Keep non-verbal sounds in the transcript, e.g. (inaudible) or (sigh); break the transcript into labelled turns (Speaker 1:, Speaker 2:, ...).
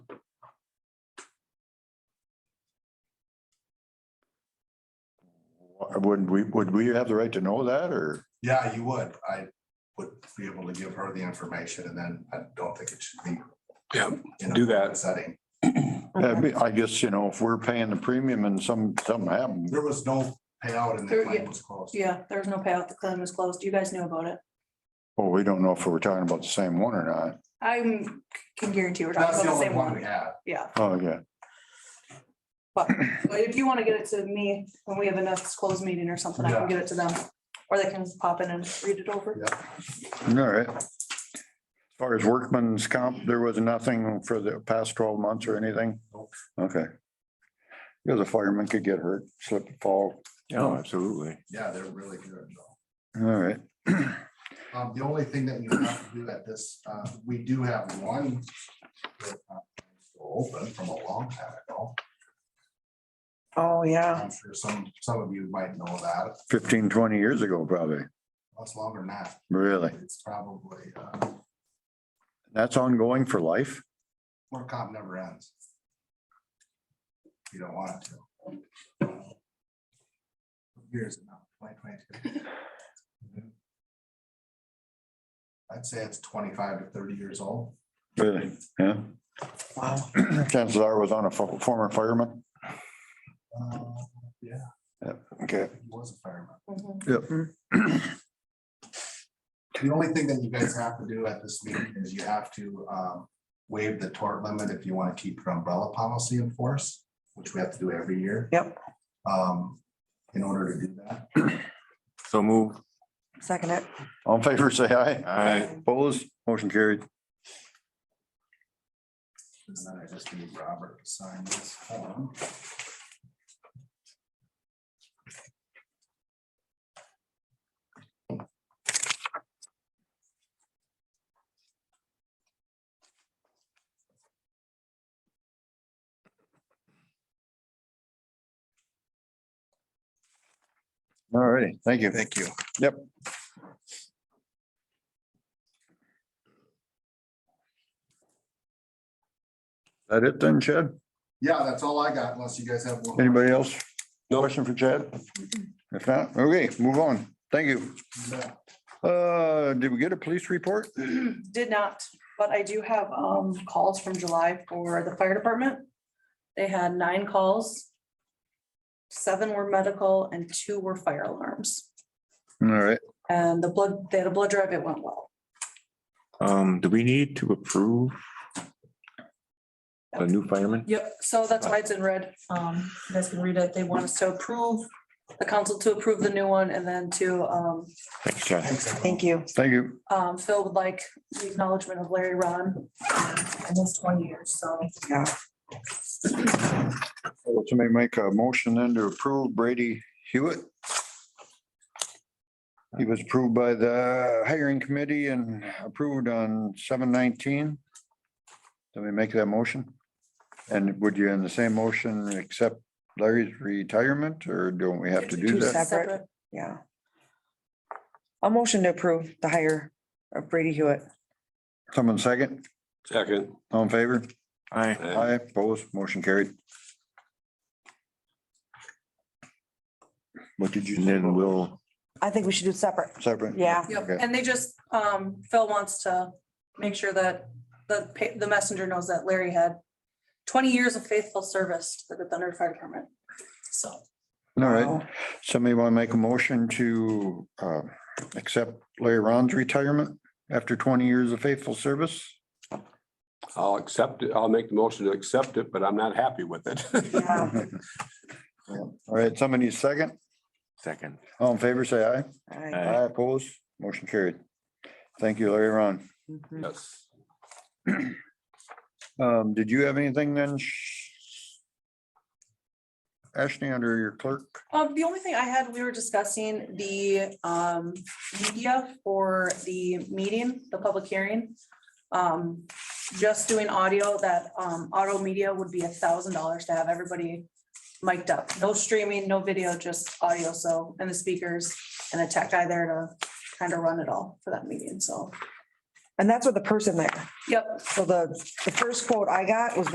Speaker 1: Would we, would we have the right to know that or?
Speaker 2: Yeah, you would. I would be able to give her the information and then I don't think it should be.
Speaker 3: Yeah,
Speaker 2: in a
Speaker 3: do that. (clears throat)
Speaker 2: Setting.
Speaker 1: I mean, I guess, you know, if we're paying the premium and some, something happened,
Speaker 2: There was no payout and the
Speaker 4: There-
Speaker 2: claim
Speaker 4: yeah.
Speaker 2: was closed.
Speaker 4: Yeah, there was no payout. The claim was closed. You guys knew about it.
Speaker 1: well, we don't know if we're talking about the same one or not.
Speaker 4: I can guarantee we're talking
Speaker 2: That's
Speaker 4: about
Speaker 2: the only
Speaker 4: the same
Speaker 2: one we
Speaker 4: one.
Speaker 2: had.
Speaker 4: Yeah,
Speaker 1: Oh, yeah.
Speaker 4: but but if you want to get it to me when we have a next closed meeting or something, I
Speaker 2: Yeah.
Speaker 4: can get it to them. Or they can just pop in and read it over.
Speaker 2: Yeah.
Speaker 1: All right. As far as workman's comp, there was nothing for the past twelve months or anything?
Speaker 2: Nope.
Speaker 1: Okay. Because a fireman could get hurt, slip and fall.
Speaker 5: Oh, absolutely.
Speaker 2: Yeah, they're really good. though.
Speaker 1: All right.
Speaker 2: Um, the only thing that you have to do at this, uh, we do have one. that, uh, Open from a long time ago.
Speaker 6: Oh, yeah.
Speaker 4: Uh-huh.
Speaker 2: I'm sure some, some of you might know that.
Speaker 1: Fifteen, twenty years ago, probably.
Speaker 2: That's longer than that.
Speaker 1: Really?
Speaker 2: It's probably, uh,
Speaker 1: That's ongoing for life?
Speaker 2: work comp never ends. You don't want it to. Years now, twenty twenty-two. I'd say it's twenty-five to thirty years old.
Speaker 1: Really? Yeah. (clears throat)
Speaker 6: Wow.
Speaker 1: Chances are it was on a fo- former fireman.
Speaker 2: Uh, Yeah,
Speaker 1: Okay.
Speaker 2: he was a fireman.
Speaker 4: Mhm.
Speaker 1: Yep.
Speaker 2: The only thing that you guys have to do at this meeting is you have to um, waive the tort limit if you want to keep your umbrella policy in force, which we have to do every year.
Speaker 6: Yep.
Speaker 2: Um, In order to do that.
Speaker 5: So move.
Speaker 6: Second it.
Speaker 1: All in favor, say aye.
Speaker 5: Aye.
Speaker 1: Opposed, motion carried.
Speaker 2: And then I just need Robert to sign this form.
Speaker 1: All righty, thank you.
Speaker 2: Thank you.
Speaker 1: Yep. That it then, Chad?
Speaker 2: Yeah, that's all I got, unless you guys have one.
Speaker 1: Anybody else? No question for Chad? If not, okay, move on. Thank you.
Speaker 2: Yeah.
Speaker 1: Uh, did we get a police report?
Speaker 4: Did not, but I do have um calls from July for the fire department. They had nine calls. Seven were medical and two were fire alarms.
Speaker 1: All right,
Speaker 4: And the blood, they had a blood drive. It went well.
Speaker 5: Um, do we need to approve? A new fireman?
Speaker 4: Yep, so that's why it's in red. Um, you guys can read it. They want us to approve, the council to approve the new one and then to, um,
Speaker 5: Thanks, Chad.
Speaker 2: Thanks, everyone.
Speaker 6: Thank you.
Speaker 1: thank you.
Speaker 4: um, Phil would like the acknowledgement of Larry Ron. And that's twenty years, so.
Speaker 6: Yeah.
Speaker 1: Somebody make a motion then to approve Brady Hewitt. He was approved by the hiring committee and approved on seven nineteen. Let me make that motion. And would you in the same motion accept Larry's retirement or don't we have to do
Speaker 4: Two
Speaker 1: that?
Speaker 6: separate.
Speaker 4: separate.
Speaker 6: Yeah. A motion to approve the hire of Brady Hewitt.
Speaker 1: Someone second,
Speaker 3: Second.
Speaker 1: all in favor?
Speaker 5: Aye.
Speaker 1: Aye, opposed, motion carried. What did you?
Speaker 5: And then we'll,
Speaker 6: I think we should do separate.
Speaker 1: Separate?
Speaker 6: Yeah.
Speaker 4: Yep,
Speaker 1: Okay.
Speaker 4: and they just, um, Phil wants to make sure that the, pa- the messenger knows that Larry had twenty years of faithful service to the Thunder Fire Department. So.
Speaker 1: All right.
Speaker 6: Wow.
Speaker 1: Somebody want to make a motion to uh, accept Larry Ron's retirement after twenty years of faithful service?
Speaker 3: I'll accept it. I'll make the motion to accept it, but I'm not happy with it. (laughs)
Speaker 6: Yeah.
Speaker 1: All right, somebody need a second,
Speaker 5: second.
Speaker 1: all in favor, say aye.
Speaker 6: All right.
Speaker 5: Aye.
Speaker 1: Aye opposed, motion carried. Thank you, Larry Ron.
Speaker 6: Mhm.
Speaker 3: Yes.
Speaker 1: Um, Did you have anything then? Sh- Ashley, under your clerk,
Speaker 4: Um, the only thing I had, we were discussing the, um, media for the meeting, the public hearing. Um, just doing audio, that, um, auto media would be a thousand dollars to have everybody mic'd up. No streaming, no video, just audio, so, and the speakers and a tech guy there to kind of run it all for that meeting, so.
Speaker 6: And that's with the person there.
Speaker 4: Yep,
Speaker 6: So the, the first quote I got was